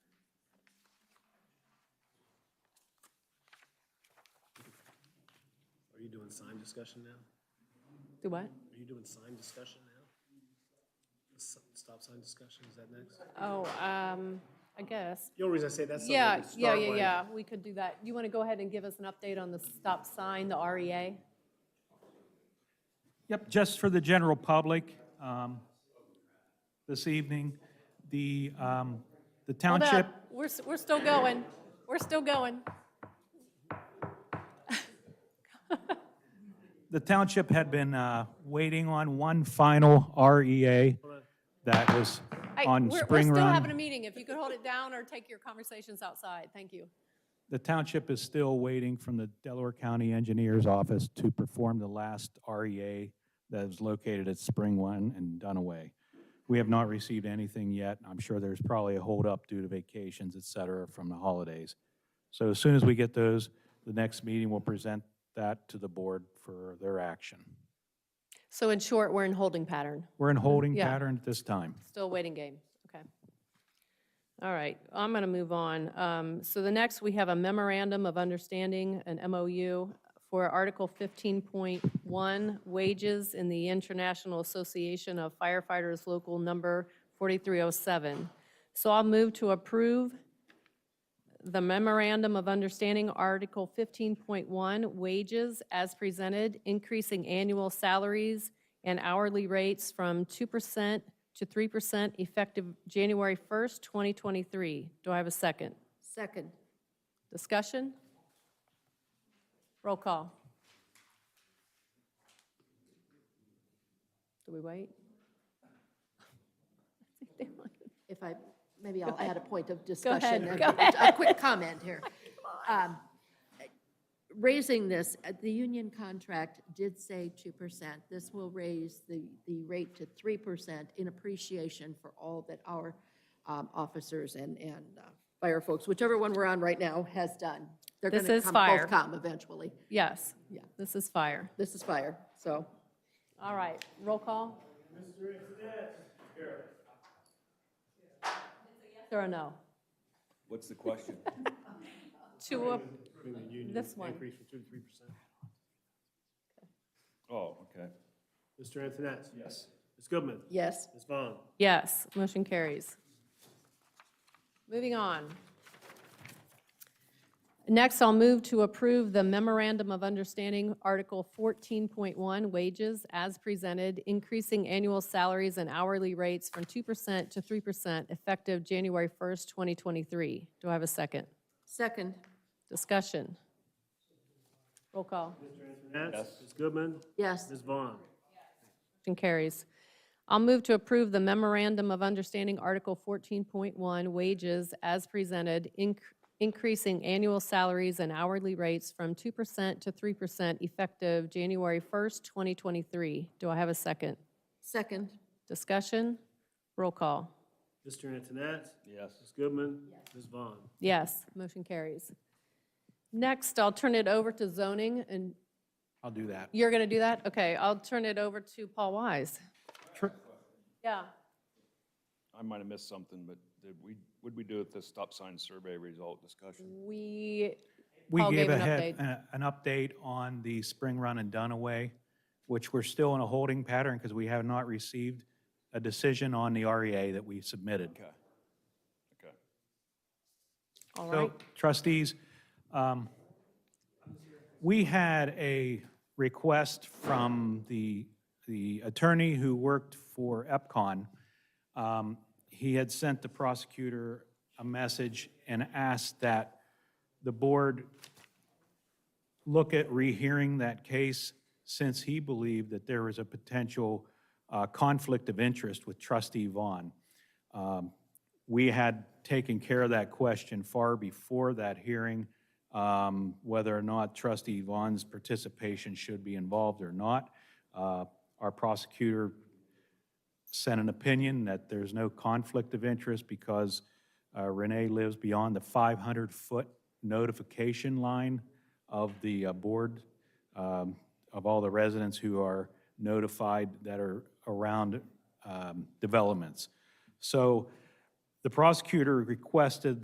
Are you doing sign discussion now? Do what? Are you doing sign discussion now? S- Stop sign discussion, is that next? Oh, um, I guess. The only reason I say that's something we Yeah, could yeah, start yeah, with. yeah, we could do that. You want to go ahead and give us an update on the stop sign, the E REA? Yep, just for the general public, um, this evening, the, um, the Hold township, up. We're, s- we're still going. We're still going. the township had been, uh, waiting on one final REA that was Hey, on we're- Spring We're still having a Run. meeting. If you could hold it down or take your conversations outside, thank you. The township is still waiting from the Delaware County Engineers Office to perform the last REA that is located at Spring Run and Dunaway. We have not received anything yet. I'm sure there's probably a holdup due to vacations, et cetera, from the holidays. So as soon as we get those, the next meeting will present that to the board for their action. So in short, we're in holding pattern, We're in holding Yeah. pattern at this time. still waiting game. Okay. All right, I'm going to move on. Um, So the next, we have a memorandum of understanding, an MOU, for Article 15.1 wages in the International Association of Firefighters Local Number 4307. So I'll move to approve the memorandum of understanding, Article 15.1, wages as presented, increasing annual salaries and hourly rates from 2% to 3% effective January 1st, 2023. Do I have a second? Second. Discussion? Roll call. Do we wait? If I, maybe I'll add a point of ahead, discussion. and go a- A quick comment here. Um, Raising this, uh, the union contract did say 2%. This will raise the, the rate to 3% in appreciation for all that our um, officers and, and uh, fire folks, whichever one we're on right now, has done. They're This gonna is come- fire. Both come eventually. Yes. Yeah. This is fire. This is fire, so. All right, roll call. Mr. Or a no? What's the question? Two, of- Between the union This one. Increase from two to three percent. Oh, okay. Mr. Antoinette? Yes. Ms. Goodman? Yes. Ms. Vaughn? yes, motion carries. Moving on. Next, I'll move to approve the Memorandum of Understanding, Article 14.1, Wages as presented, increasing annual salaries and hourly rates from 2% to 3% effective January 1st, 2023. Do I have a second? Second. Discussion. Roll call. Antoinette? Ms. Goodman? Yes. Ms. Vaughn? Motion carries. I'll move to approve the Memorandum of Understanding, Article 14.1, Wages as presented, inc- increasing annual salaries and hourly rates from 2% to 3% effective January 1st, 2023. Do I have a second? Second. Discussion? Roll call. Mr. Antoinette? Yes. Ms. Goodman? Ms. Vaughn? Yes, motion carries. Next, I'll turn it over to zoning, and I'll do that. you're going to do that? Okay, I'll turn it over to Paul Wise. Tr- Yeah. I might have missed something, but did we, would we do it the stop sign survey result discussion? We, We Paul gave gave a an head, update. a- an update on the Spring Run and Dunaway, which we're still in a holding pattern because we have not received a decision on the REA that we submitted. Okay. Okay. all right. So trustees, um, we had a request from the, the attorney who worked for EPCON. Um, He had sent the prosecutor a message and asked that the board look at rehearing that case since he believed that there was a potential uh, conflict of interest with trustee Vaughn Um, we had taken care of that question far before that hearing, um, whether or not trustee Vaughn's participation should be involved or not. Uh, Our prosecutor sent an opinion that there's no conflict of interest because uh, Renee lives beyond the 500-foot notification line of the uh, board, um, of all the residents who are notified that are around um, developments. So the prosecutor requested